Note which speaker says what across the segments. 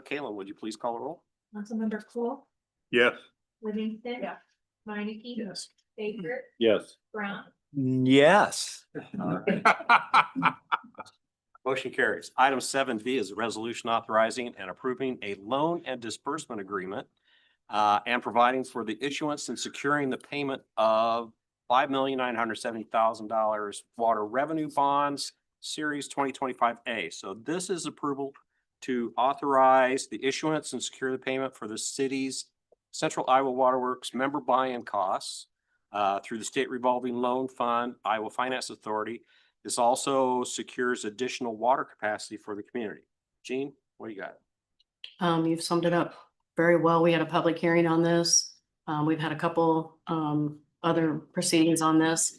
Speaker 1: Kayla, would you please call a roll?
Speaker 2: Councilmember Cool,
Speaker 3: Yes.
Speaker 2: Livingston.
Speaker 4: Yeah.
Speaker 2: Minneke.
Speaker 3: Yes.
Speaker 2: Baker,
Speaker 3: Yes.
Speaker 2: Brown,
Speaker 5: Yes.
Speaker 1: Motion carries. Item seven V is a resolution authorizing and approving a loan and disbursement agreement uh, and providing for the issuance and securing the payment of five million nine hundred seventy thousand dollars water revenue bonds, series twenty twenty-five A. So this is approval to authorize the issuance and secure the payment for the city's Central Iowa Waterworks member buy-in costs uh, through the State Revolving Loan Fund, Iowa Finance Authority, this also secures additional water capacity for the community. Gene, what do you got?
Speaker 4: Um, you've summed it up very well. We had a public hearing on this. Um, we've had a couple, um, other proceedings on this.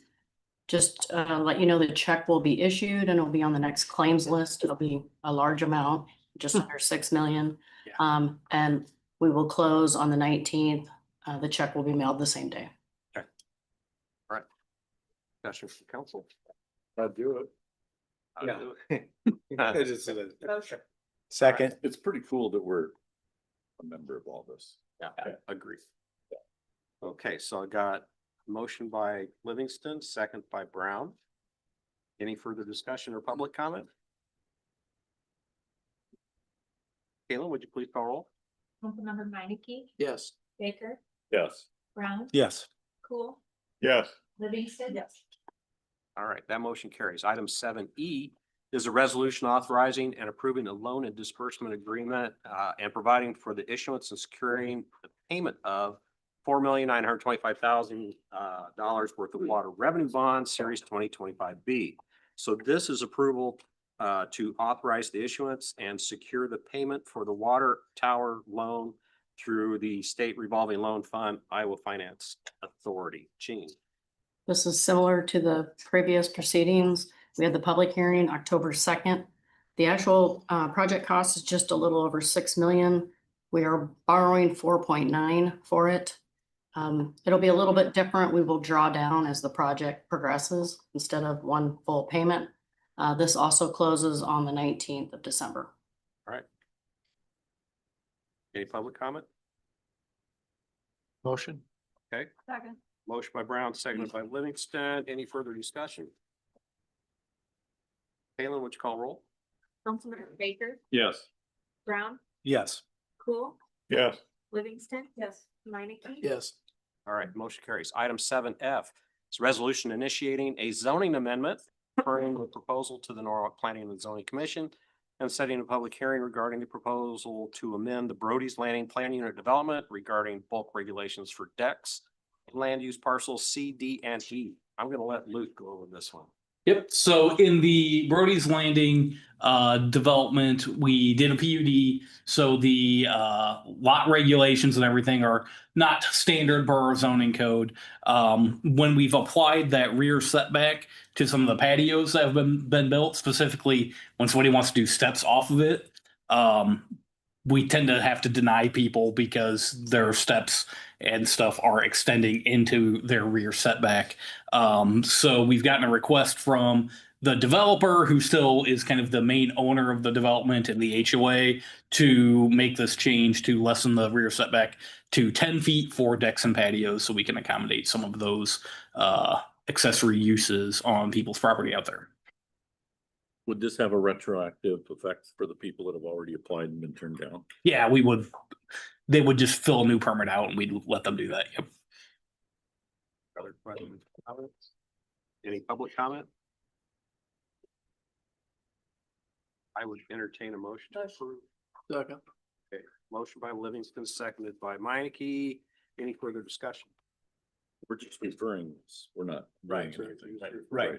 Speaker 4: Just, uh, let you know the check will be issued and it'll be on the next claims list. It'll be a large amount, just under six million.
Speaker 1: Yeah.
Speaker 4: Um, and we will close on the nineteenth. Uh, the check will be mailed the same day.
Speaker 1: Discussion from council.
Speaker 3: I'd do it.
Speaker 1: Uh,
Speaker 2: Motion.
Speaker 5: Second.
Speaker 3: It's pretty cool that we're a member of all this.
Speaker 1: Yeah, agree. Okay, so I got a motion by Livingston, second by Brown. Any further discussion or public comment? Caitlin, would you please call roll?
Speaker 2: Councilmember Minneke,
Speaker 1: Yes.
Speaker 2: Baker,
Speaker 3: Yes.
Speaker 2: Brown,
Speaker 5: Yes.
Speaker 2: Cool,
Speaker 3: Yes.
Speaker 2: Livingston. Yes.
Speaker 1: All right, that motion carries. Item seven E is a resolution authorizing and approving a loan and disbursement agreement uh, and providing for the issuance and securing the payment of four million nine hundred twenty-five thousand uh, dollars worth of water revenue bonds, series twenty twenty-five B. So this is approval uh, to authorize the issuance and secure the payment for the water tower loan through the State Revolving Loan Fund, Iowa Finance Authority. Gene?
Speaker 4: This is similar to the previous proceedings. We had the public hearing October second. The actual uh, project cost is just a little over six million. We are borrowing four point nine for it. Um, It'll be a little bit different. We will draw down as the project progresses instead of one full payment. Uh, This also closes on the nineteenth of December.
Speaker 1: Any public comment?
Speaker 5: Motion.
Speaker 2: Second.
Speaker 1: Motion by Brown, seconded by Livingston. Any further discussion? Kalen, would you call roll?
Speaker 2: Councilmember Baker,
Speaker 3: Yes.
Speaker 2: Brown,
Speaker 5: Yes.
Speaker 2: Cool,
Speaker 3: Yes.
Speaker 2: Livingston. Yes. Minneke.
Speaker 5: Yes.
Speaker 1: All right, motion carries. Item seven F is resolution initiating a zoning amendment referring the proposal to the Norwalk Planning and Zoning Commission and setting a public hearing regarding the proposal to amend the Brody's Landing Plan Unit Development regarding bulk regulations for decks, land use parcels C, D, and E. I'm gonna let Luke go over this one.
Speaker 6: Yep, so in the Brody's Landing uh development, we did a PUD. So the uh lot regulations and everything are not standard borough zoning code. Um, when we've applied that rear setback to some of the patios that have been been built, specifically when somebody wants to do steps off of it, um we tend to have to deny people because their steps and stuff are extending into their rear setback. Um, so we've gotten a request from the developer who still is kind of the main owner of the development and the HOA to make this change to lessen the rear setback to 10 feet for decks and patios so we can accommodate some of those uh, accessory uses on people's property out there.
Speaker 3: Would this have a retroactive effect for the people that have already applied and been turned down?
Speaker 6: Yeah, we would, they would just fill a new permit out and we'd let them do that. Yep.
Speaker 1: Other questions, comments? Any public comment? I would entertain a motion to approve.
Speaker 5: Second.
Speaker 1: Motion by Livingston, seconded by Minneke. Any further discussion?
Speaker 3: We're just referring, this. we're not.
Speaker 5: Right.
Speaker 3: Right.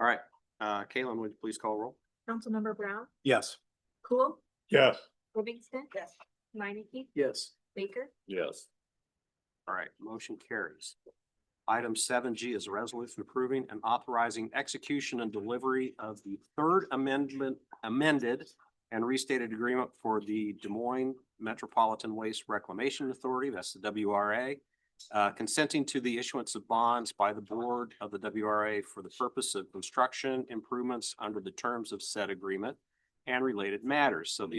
Speaker 1: All right, uh, Kalen, would you please call roll?
Speaker 2: Councilmember Brown,
Speaker 5: Yes.
Speaker 2: Cool,
Speaker 3: Yes.
Speaker 2: Livingston. Yes. Minneke,
Speaker 5: Yes.
Speaker 2: Baker,
Speaker 3: Yes.
Speaker 1: All right, motion carries. Item seven G is a resolution approving and authorizing execution and delivery of the third amendment amended and restated agreement for the Des Moines Metropolitan Waste Reclamation Authority, that's the WRA, uh, consenting to the issuance of bonds by the board of the WRA for the purpose of construction improvements under the terms of said agreement and related matters. So the